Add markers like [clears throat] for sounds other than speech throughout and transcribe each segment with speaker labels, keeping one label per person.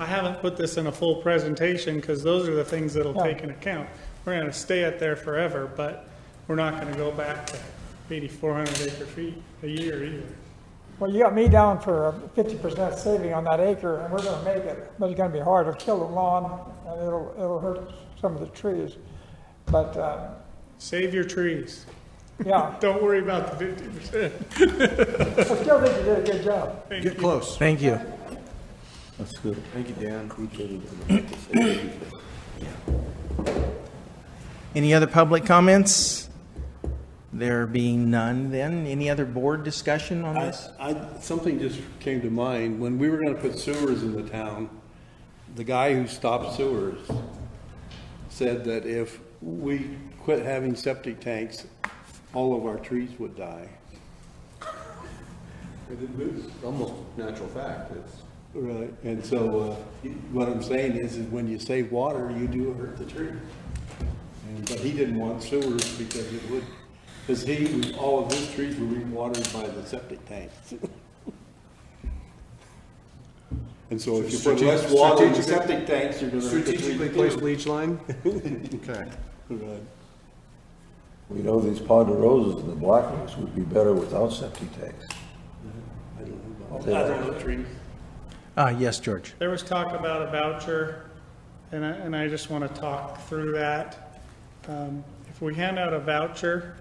Speaker 1: I haven't put this in a full presentation, because those are the things that'll
Speaker 2: Yeah.
Speaker 1: take into account. We're gonna stay at there forever, but we're not gonna go back to eighty-four hundred acre feet a year either.
Speaker 2: Well, you got me down for a fifty percent saving on that acre, and we're gonna make it, but it's gonna be hard, it'll kill the lawn, and it'll, it'll hurt some of the trees. But, uh,
Speaker 1: Save your trees.
Speaker 2: yeah, [laughs]
Speaker 1: Don't worry about the fifty percent.
Speaker 2: I still think you did a good job.
Speaker 3: Get close.
Speaker 4: Thank you.
Speaker 5: That's good.
Speaker 3: Thank you, Dan.
Speaker 4: Any other public comments? There being none, then, any other board discussion on
Speaker 5: I,
Speaker 4: this?
Speaker 5: I- something just came to mind. When we were gonna put sewers in the town, the guy who stopped sewers said that if we quit having septic tanks, all of our trees would die.
Speaker 6: It's almost natural fact. It's,
Speaker 5: Right. And so, uh, what I'm saying is, is when you save water, you do hurt the tree. And- But he didn't want sewers because it would, because he, all of his trees were being watered by the septic tanks. And so if you put less water in the
Speaker 3: Strategic-
Speaker 5: septic tanks, you're gonna hurt the
Speaker 3: Strategically
Speaker 5: tree.
Speaker 3: placed leach line? Okay.
Speaker 5: Right.
Speaker 7: You know, these pot of roses and the black ones would be better without septic tanks.
Speaker 5: I don't know about- I don't know trees.
Speaker 4: Uh, yes, George.
Speaker 1: There was talk about a voucher, and I, and I just want to talk through that. Um, If we hand out a voucher,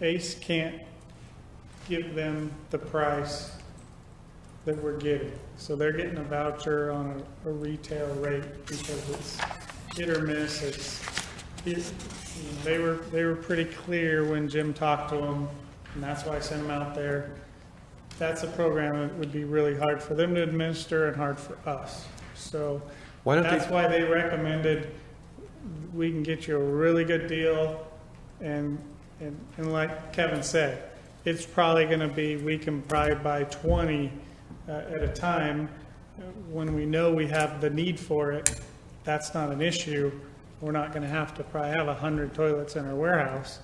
Speaker 1: ACE can't give them the price that we're getting. So they're getting a voucher on a, a retail rate because it's hit or miss, it's, it- they were, they were pretty clear when Jim talked to them, and that's why I sent them out there that's a program that would be really hard for them to administer and hard for us. So
Speaker 3: Why don't
Speaker 1: that's
Speaker 3: they,
Speaker 1: why they recommended, we can get you a really good deal. And, and, and like Kevin said, it's probably going to be, we can probably buy 20 uh, at a time. Uh, When we know we have the need for it, that's not an issue. We're not going to have to probably have 100 toilets in our warehouse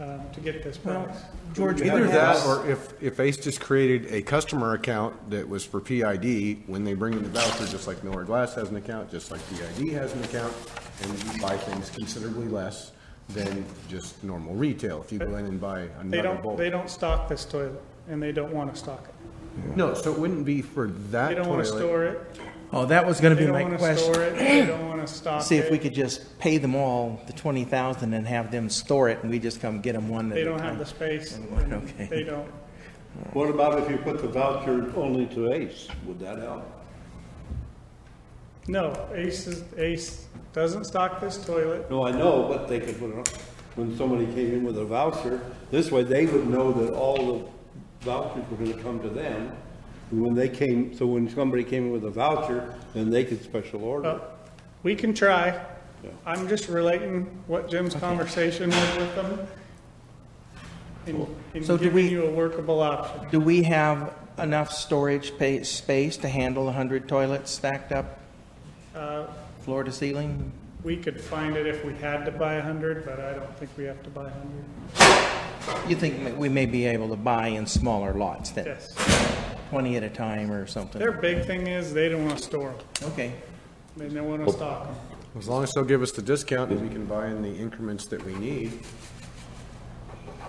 Speaker 1: uh, to get this price.
Speaker 4: George,
Speaker 3: either that, or if, if ACE just created a customer account that was for PID, when they bring in the voucher, just like Miller Glass has an account, just like PID has an account, and you buy things considerably less than just normal retail, if you go in and buy
Speaker 1: They
Speaker 3: another
Speaker 1: don't, they
Speaker 3: bulk.
Speaker 1: don't stock this toilet, and they don't want to stock it.
Speaker 3: No, so it wouldn't be for that
Speaker 1: They don't want to
Speaker 3: toilet.
Speaker 1: store it.
Speaker 4: Oh, that was gonna
Speaker 1: They
Speaker 4: be
Speaker 1: don't
Speaker 4: my
Speaker 1: want to
Speaker 4: question.
Speaker 1: store it. They don't
Speaker 4: [clears throat]
Speaker 1: want to stock it.
Speaker 4: See if we could just pay them all the twenty thousand and have them store it, and we just come get them one at
Speaker 1: They
Speaker 4: a
Speaker 1: don't have
Speaker 4: time.
Speaker 1: the space. and
Speaker 4: Okay.
Speaker 1: They don't.
Speaker 5: What about if you put the voucher only to Ace? Would that help?
Speaker 1: No, Ace is, Ace doesn't stock this toilet.
Speaker 5: No, I know, but they could put it on, when somebody came in with a voucher, this way they would know that all the vouchers were gonna come to them. And when they came, so when somebody came in with a voucher, then they could special order.
Speaker 1: But we can try. I'm just relating what Jim's conversation was with them and, and
Speaker 4: So do
Speaker 1: giving
Speaker 4: we-
Speaker 1: you a workable option.
Speaker 4: Do we have enough storage pa- space to handle a hundred toilets stacked up?
Speaker 1: Uh,
Speaker 4: Floor to ceiling?
Speaker 1: We could find it if we had to buy a hundred, but I don't think we have to buy a hundred.
Speaker 4: You think ma- we may be able to buy in smaller lots then?
Speaker 1: Yes.
Speaker 4: Twenty at a time or something?
Speaker 1: Their big thing is they don't want to store them.
Speaker 4: Okay.
Speaker 1: They don't want to stock them.
Speaker 3: As long as they'll give us the discount, and we can buy in the increments that we need,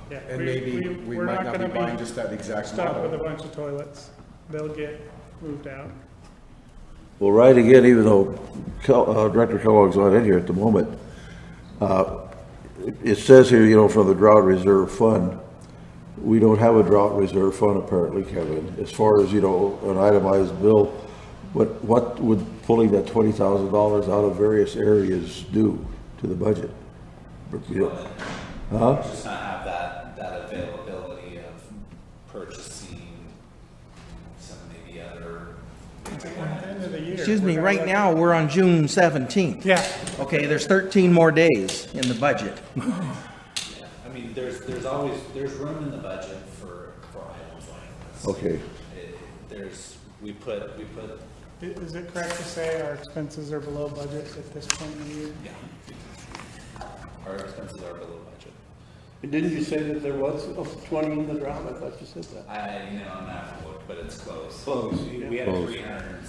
Speaker 1: Yeah,
Speaker 3: and
Speaker 1: we-
Speaker 3: maybe we
Speaker 1: we're
Speaker 3: might not be
Speaker 1: gonna
Speaker 3: buying just that exact
Speaker 1: stuck with a
Speaker 3: model.
Speaker 1: bunch of toilets. They'll get moved out.
Speaker 7: Well, right again, even though Kel- uh, Director Kellogg's not in here at the moment, uh, it- it says here, you know, from the drought reserve fund, we don't have a drought reserve fund apparently, Kevin, as far as, you know, an itemized bill. But what would pulling that twenty thousand dollars out of various areas do to the budget? But, you know,
Speaker 8: just not have that, that availability of purchasing some maybe other
Speaker 1: End of the year.
Speaker 4: Excuse me,
Speaker 1: we're
Speaker 4: right
Speaker 1: gonna-
Speaker 4: now, we're on June seventeenth.
Speaker 1: Yeah,
Speaker 4: Okay, there's thirteen more days in the budget.
Speaker 8: I mean, there's, there's always, there's room in the budget for, for items like this.
Speaker 7: Okay.
Speaker 8: It- There's, we put, we put,
Speaker 1: I- is it correct to say our expenses are below budget at this point in the year?
Speaker 8: yeah, our expenses are below budget.
Speaker 5: And didn't you say that there was twenty in the drought? I thought you said that.
Speaker 8: I, you know, I'm not, but it's close.
Speaker 5: Close,
Speaker 8: We- We had three hundred and